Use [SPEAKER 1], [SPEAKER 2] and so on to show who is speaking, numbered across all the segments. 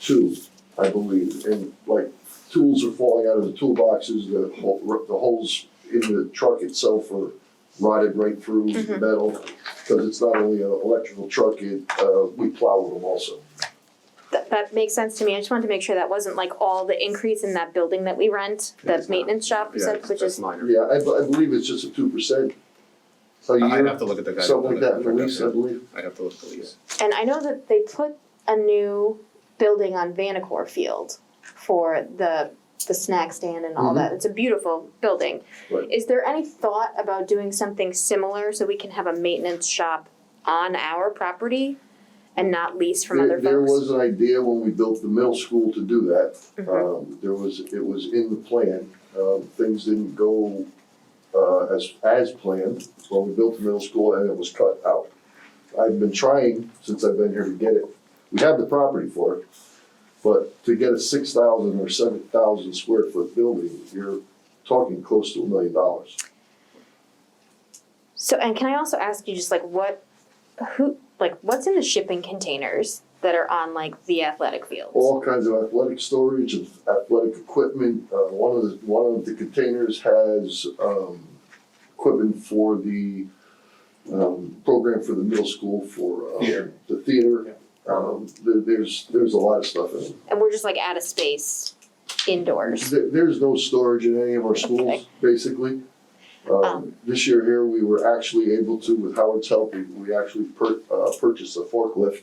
[SPEAKER 1] two, I believe, and like tools are falling out of the toolboxes, the hole, the holes in the truck itself are rotted right through the
[SPEAKER 2] Mhm.
[SPEAKER 1] metal. Cause it's not only an electrical truck, it, uh, we plow with them also.
[SPEAKER 2] That, that makes sense to me, I just wanted to make sure that wasn't like all the increase in that building that we rent, the
[SPEAKER 3] It's not.
[SPEAKER 2] maintenance shop, you
[SPEAKER 3] Yeah,
[SPEAKER 2] said,
[SPEAKER 3] it's-
[SPEAKER 2] which
[SPEAKER 3] that's
[SPEAKER 2] is,
[SPEAKER 3] minor.
[SPEAKER 1] Yeah, I, I believe it's just a two percent a
[SPEAKER 3] I- I'd
[SPEAKER 1] year,
[SPEAKER 3] have to look at the guy.
[SPEAKER 1] something like that, in the lease, I believe.
[SPEAKER 3] I'd have to look at the lease.
[SPEAKER 2] and I know that they put a new building on Vanacore Field for the, the snack stand and all
[SPEAKER 1] Mhm.
[SPEAKER 2] that, it's a beautiful building.
[SPEAKER 1] Right.
[SPEAKER 2] Is there any thought about doing something similar, so we can have a maintenance shop on our property and not lease from
[SPEAKER 1] There-
[SPEAKER 2] other folks?
[SPEAKER 1] There was uh, an idea when we built the middle school to do that.
[SPEAKER 2] Mhm.
[SPEAKER 1] Um, there was, it was in the plan, um, things didn't go, uh, as, as planned when we built the middle school and it was cut out. I've been trying since I've been here to get it, we have the property for it, but to get a six thousand or seven thousand square foot building, you're talking close to a million dollars.
[SPEAKER 2] So, and can I also ask you just like what, who, like what's in the shipping containers that are on like the athletic fields?
[SPEAKER 1] all kinds of athletic storage and athletic equipment. Uh, one of the, one of the containers has, um, equipment for the, um, program for the middle school for, um,
[SPEAKER 3] Theater.
[SPEAKER 1] the theater. Um, there, there's, there's a lot of stuff in it.
[SPEAKER 2] And we're just like out of space indoors.
[SPEAKER 1] There, there's no storage in any of our schools,
[SPEAKER 2] Okay.
[SPEAKER 1] basically. Um, this year here, we were actually able to, with Howard's help, we, we actually per, uh, purchased a forklift.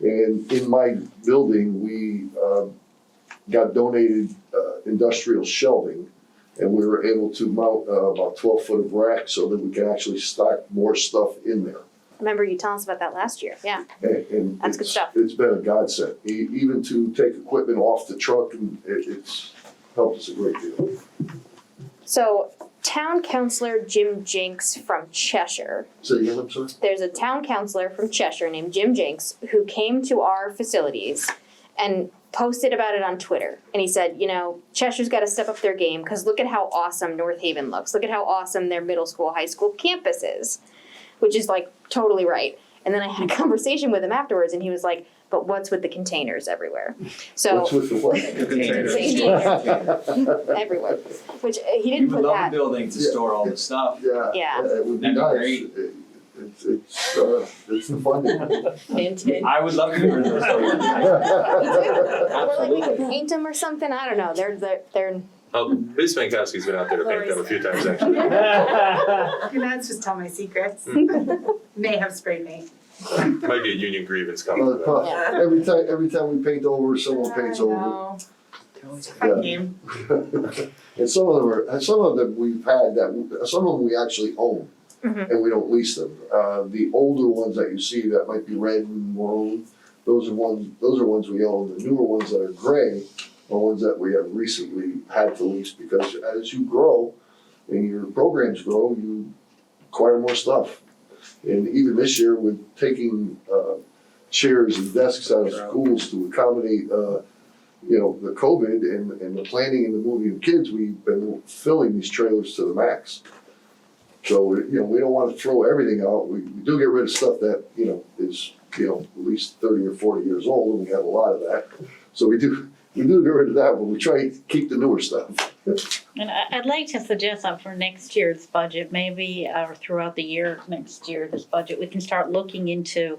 [SPEAKER 1] And in my building, we, um, got donated, uh, industrial shelving. And we were able to mount, uh, about twelve foot of rack so that we can actually stock more stuff in there.
[SPEAKER 2] Remember you telling us about that last year? Yeah.
[SPEAKER 1] And, and
[SPEAKER 2] That's good
[SPEAKER 1] it's-
[SPEAKER 2] stuff.
[SPEAKER 1] It's been a godsend, e- even to take equipment off the truck and it, it's helped us a great deal.
[SPEAKER 2] So, town councilor Jim Jinks from Cheshire.
[SPEAKER 1] Say again, I'm sorry?
[SPEAKER 2] There's a town councilor from Cheshire named Jim Jinks who came to our facilities and posted about it on Twitter. And he said, you know, Cheshire's got to step up their game because look at how awesome North Haven looks. Look at how awesome their middle school, high school campus is, which is like totally right. And then I had a conversation with him afterwards and he was like, but what's with the containers everywhere? So,
[SPEAKER 1] What's with the what?
[SPEAKER 2] everywhere. Which uh, he
[SPEAKER 4] We
[SPEAKER 2] didn't
[SPEAKER 4] would
[SPEAKER 2] put
[SPEAKER 4] love a
[SPEAKER 2] that.
[SPEAKER 4] building to
[SPEAKER 1] Yeah.
[SPEAKER 4] store all the stuff.
[SPEAKER 1] Yeah.
[SPEAKER 2] Yeah.
[SPEAKER 1] It would be
[SPEAKER 4] That'd be
[SPEAKER 1] nice.
[SPEAKER 4] great.
[SPEAKER 1] It- It's, it's, uh, it's the funding.
[SPEAKER 4] I would love to hear those stories.
[SPEAKER 2] Or like we could
[SPEAKER 4] Absolutely.
[SPEAKER 2] paint them or something. I don't know. They're, they're, they're
[SPEAKER 5] Um, Ms. Mankowski's been out there to paint them a few times actually.
[SPEAKER 6] Your mouth just tell my secrets. May have sprayed me.
[SPEAKER 5] Might be a union grievance coming.
[SPEAKER 1] Another
[SPEAKER 5] up.
[SPEAKER 1] puff. Every time, every time we paint over, someone paints over.
[SPEAKER 6] It's a
[SPEAKER 1] Yeah.
[SPEAKER 6] fun game.
[SPEAKER 1] And some of them are, and some of them we've had that, some of them we actually own.
[SPEAKER 2] Mhm.
[SPEAKER 1] And we don't lease them. Uh, the older ones that you see that might be red and maroon, those are ones, those are ones we own. The newer ones that are gray are ones that we have recently had to lease because as you grow and your programs grow, you acquire more stuff. And even this year with taking, uh, chairs and desks out of schools to accommodate, uh, you know, the COVID and, and the planning and the moving of kids, we've been filling these trailers to the max. So, you know, we don't wanna throw everything out, we, we do get rid of stuff that, you know, is, you know, at least thirty or forty years old, and we have a lot of that. So we do, we do get rid of that, but we try to keep the newer stuff.
[SPEAKER 7] And I, I'd like to suggest that for next year's budget, maybe, or throughout the year, next year, this budget, we can start looking into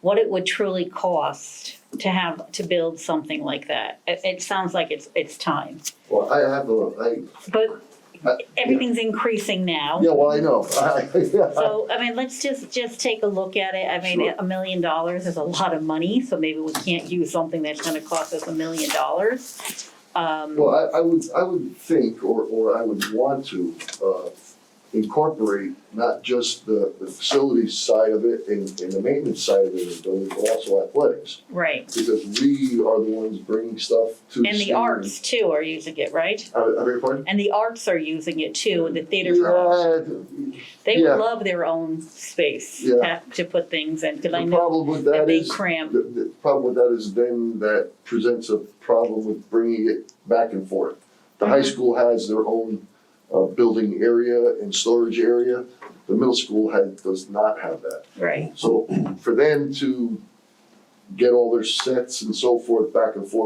[SPEAKER 7] what it would truly cost to have, to build something like that. It, it sounds like it's, it's time,
[SPEAKER 1] Well, I have a, I,
[SPEAKER 7] but
[SPEAKER 1] Uh,
[SPEAKER 7] everything's increasing now.
[SPEAKER 1] yeah, well, I know, I,
[SPEAKER 7] So, I mean, let's just, just take a look at it. I mean,
[SPEAKER 1] Sure.
[SPEAKER 7] a million dollars is a lot of money, so maybe we can't use something that's gonna cost us a million dollars. Um,
[SPEAKER 1] well, I, I would, I would think, or, or I would want to, uh, incorporate not just the, the facilities side of it and, and the maintenance side of it, in the building, but also athletics.
[SPEAKER 7] right,
[SPEAKER 1] Because we are the ones bringing stuff to.
[SPEAKER 7] and the
[SPEAKER 1] students.
[SPEAKER 7] arts too are using it, right?
[SPEAKER 1] I, I beg your pardon?
[SPEAKER 7] And the arts are using it too, and the theater groups.
[SPEAKER 1] Yeah,
[SPEAKER 7] They would
[SPEAKER 1] yeah.
[SPEAKER 7] love their own space
[SPEAKER 1] Yeah.
[SPEAKER 7] to- to put things in, because I
[SPEAKER 1] The
[SPEAKER 7] know
[SPEAKER 1] problem with
[SPEAKER 7] that
[SPEAKER 1] that
[SPEAKER 7] they
[SPEAKER 1] is,
[SPEAKER 7] cram.
[SPEAKER 1] the, the problem with that is then that presents a problem with bringing it back and forth. The high school has their own, uh, building area and storage area. The middle school had, does not have that.
[SPEAKER 7] Right.
[SPEAKER 1] So for them to get all their sets and so forth back and forth